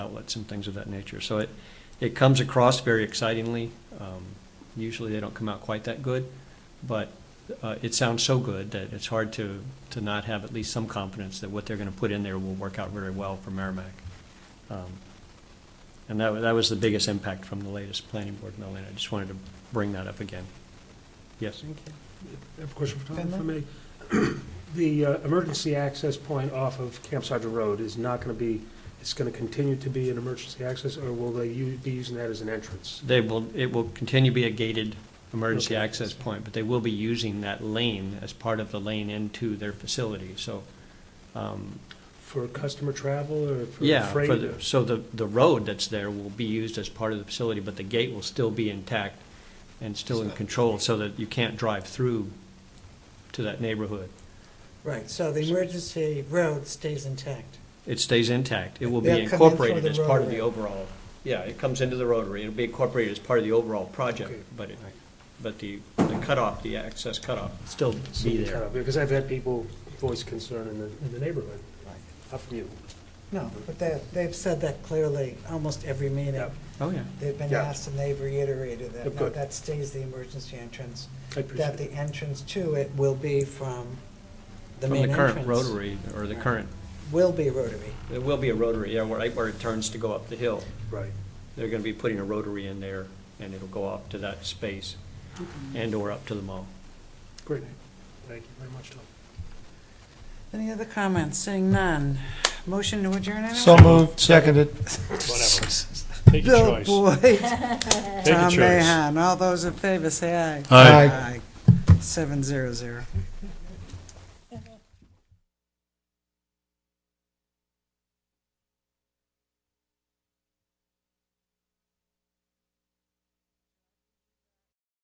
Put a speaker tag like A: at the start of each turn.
A: outlets and things of that nature. So it, it comes across very excitingly. Um, Usually they don't come out quite that good, but uh, it sounds so good that it's hard to, to not have at least some confidence that what they're going to put in there will work out very well for Merrimack. Um, And that, wa- that was the biggest impact from the latest planning board, Melanie. I just wanted to bring that up again. Yes?
B: Thank you.
C: I have a question for Tom, if I may. The uh, emergency access point off of Camp Sargent Road is not going to be, it's going to continue to be an emergency access, or will they u- be using that as an entrance?
A: They will, it will continue to be a gated emergency
C: Okay.
A: access point, but they will be using that lane as part of the lane into their facility. So um,
C: For customer travel or for
A: Yeah, for
C: freight?
A: the- so the, the road that's there will be used as part of the facility, but the gate will still be intact and still in control, so that you can't drive through to that neighborhood.
B: Right, so the emergency road stays intact.
A: It stays intact. It will be
B: They'll come in through
A: incorporated
B: the
A: as part of
B: rotary.
A: the overall, yeah, it comes into the rotary. It'll be incorporated as part of the overall project,
C: Okay.
A: but it,
C: Right.
A: but the the cutoff, the access cutoff, will still be there.
C: Because I've had people voice concern in the, in the neighborhood,
B: Right.
C: up from you.
B: No, but they, they've said that clearly, almost every meeting.
C: Yeah.
A: Oh, yeah.
B: They've been
C: Yeah.
B: asked and they've reiterated that,
C: Good,
B: no,
C: good.
B: that stays the emergency entrance.
C: I
B: That
C: appreciate
B: the
C: it.
B: entrance to it will be from the
A: From the
B: main entrance.
A: current rotary, or the current,
B: Will be rotary.
A: there will be a rotary, yeah, where where it turns to go up the hill.
C: Right.
A: they're gonna be putting a rotary in there, and it'll go up to that space and/or up to the mall.
C: Great. Thank you very much, Tom.
B: Any other comments? Seeing none. Motion to adjourn, anyone?
D: So moved, seconded.
E: Whatever. Take your
B: Bill
E: choice.
B: Boyd,
E: Take your
B: Tom
E: choice.
B: Mahan, all those in favor, say aye.
D: Aye.
B: Aye. Seven zero zero.